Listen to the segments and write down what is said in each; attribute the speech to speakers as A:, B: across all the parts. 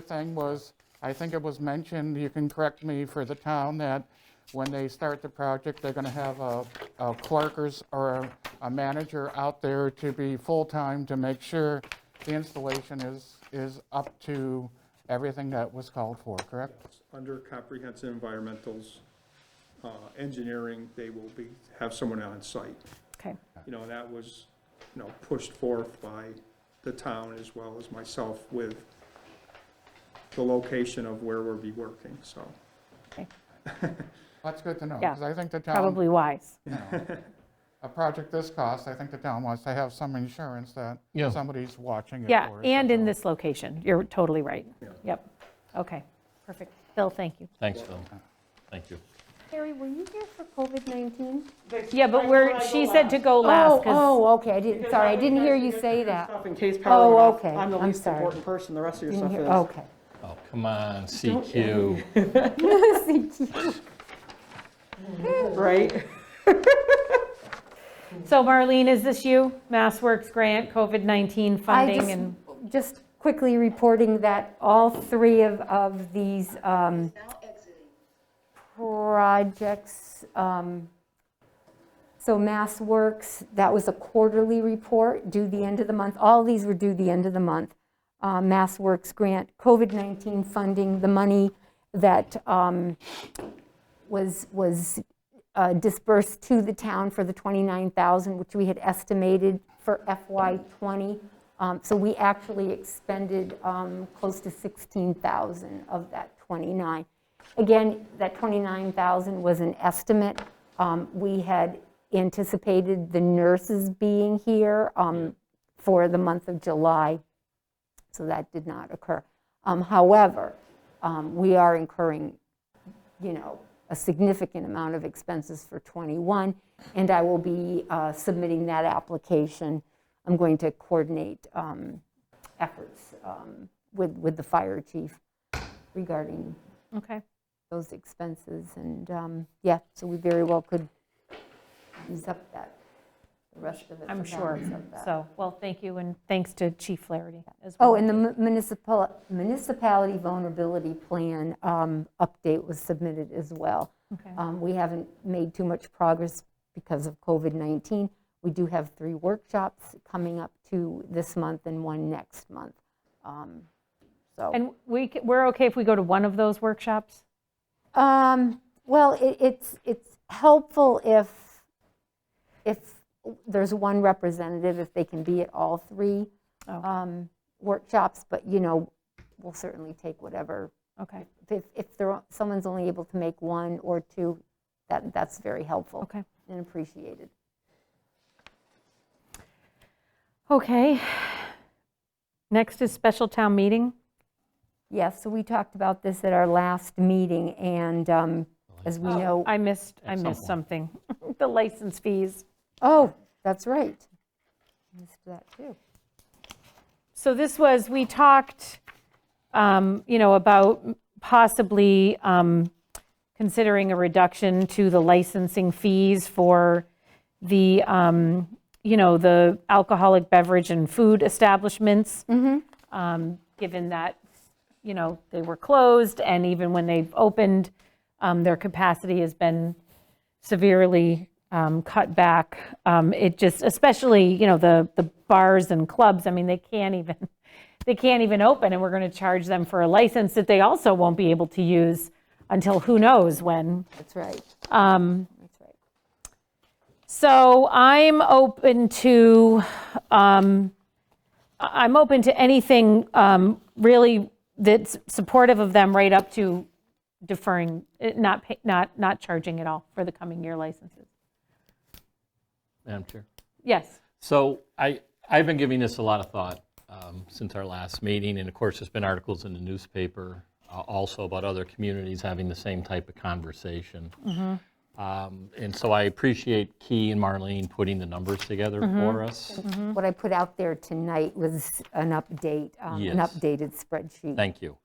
A: thing was, I think it was mentioned, you can correct me for the town, that when they start the project, they're gonna have a a clerk or s- or a- a manager out there to be full-time to make sure the installation is, is up to everything that was called for, correct?
B: Under comprehensive environmentals, uh, engineering, they will be, have someone on site.
C: Okay,
B: You know, that was, you know, pushed forth by the town as well as myself with the location of where we'll be working, so.
C: okay.
A: That's good to know,
C: Yeah,
A: because I think the town,
C: Probably wise.
A: a project this cost, I think the town wants to have some insurance that
D: Yeah.
A: somebody's watching it
C: Yeah,
A: for us.
C: and in this location. You're totally right. Yep. Okay, perfect. Bill, thank you.
D: Thanks, Phil. Thank you.
E: Carrie, were you here for COVID-19?
C: Yeah, but we're, she said to go last
E: Oh,
C: 'cause-
E: oh, okay, I didn't, sorry, I didn't hear you say that.
F: Stuff In case
E: Oh,
F: power went off,
E: okay.
F: I'm the
E: I'm
F: least
E: sorry.
F: important person, the rest of your
E: Didn't
F: stuff
E: hear-
F: is.
E: Okay.
D: Oh, come on, CQ.
F: Right?
C: So Marlene, is this you? Mass Works grant, COVID-19
E: I
C: funding and,
E: just, just quickly reporting that all three of, of these um, projects, um, so Mass Works, that was a quarterly report, due the end of the month. All these were due the end of the month. Uh, Mass Works grant, COVID-19 funding, the money that um, was, was uh, dispersed to the town for the 29,000, which we had estimated for FY '20. Um, So we actually expended um, close to 16,000 of that 29. Again, that 29,000 was an estimate. Um, We had anticipated the nurses being here um, for the month of July, so that did not occur. Um, However, um, we are incurring you know, a significant amount of expenses for '21, and I will be uh, submitting that application. I'm going to coordinate um, efforts um, with, with the fire chief regarding
C: okay.
E: those expenses, and, um, yeah, so we very well could use up that, the rest of it.
C: I'm
E: the
C: sure.
E: balance of that.
C: So, well, thank you and thanks to Chief Flaherty as well.
E: Oh, and the mu- municipal, municipality vulnerability plan um, update was submitted as well.
C: Okay.
E: Um, We haven't made too much progress because of COVID-19. We do have three workshops coming up, two this month and one next month. Um, So,
C: And we, c- we're okay if we go to one of those workshops?
E: Um, well, it- it's, it's helpful if, if there's one representative, if they can be at all three
C: Oh.
E: um, workshops, but, you know, we'll certainly take whatever
C: Okay,
E: if, if there, are- someone's only able to make one or two, that, that's very helpful.
C: Okay.
E: And appreciated.
C: okay. Next is special town meeting.
E: Yes, so we talked about this at our last meeting, and um, as we
C: Oh,
E: know,
C: I missed, I
D: At some
C: missed something. The license fees.
E: oh, that's right. Missed that, too.
C: So this was, we talked, um, you know, about possibly um, considering a reduction to the licensing fees for the, um, you know, the alcoholic beverage and food establishments. Um, Given that, you know, they were closed, and even when they've opened, um, their capacity has been severely um, cut back. Um, It just, especially, you know, the, the bars and clubs, I mean, they can't even, they can't even open, and we're going to charge them for a license that they also won't be able to use until who knows when. Um,
E: That's right. That's right.
C: So I'm open to, um, I- I'm open to anything um, really that's supportive of them right up to deferring, eh, not, pay- not, not charging at all for the coming year licenses.
D: Madam Chair.
C: Yes.
D: So I, I've been giving this a lot of thought um, since our last meeting, and of course, there's been articles in the newspaper uh, also about other communities having the same type of conversation. Um, And so I appreciate Key and Marlene putting the numbers together for us.
E: What I put out there tonight was an update, um, an
D: Yes.
E: updated spreadsheet.
D: Thank you.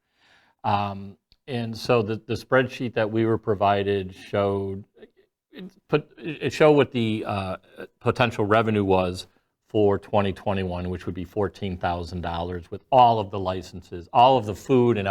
D: Um, And so the the spreadsheet that we were provided showed, it put- it showed what the uh, potential revenue was for 2021, which would be $14,000 with all of the licenses, all of the food and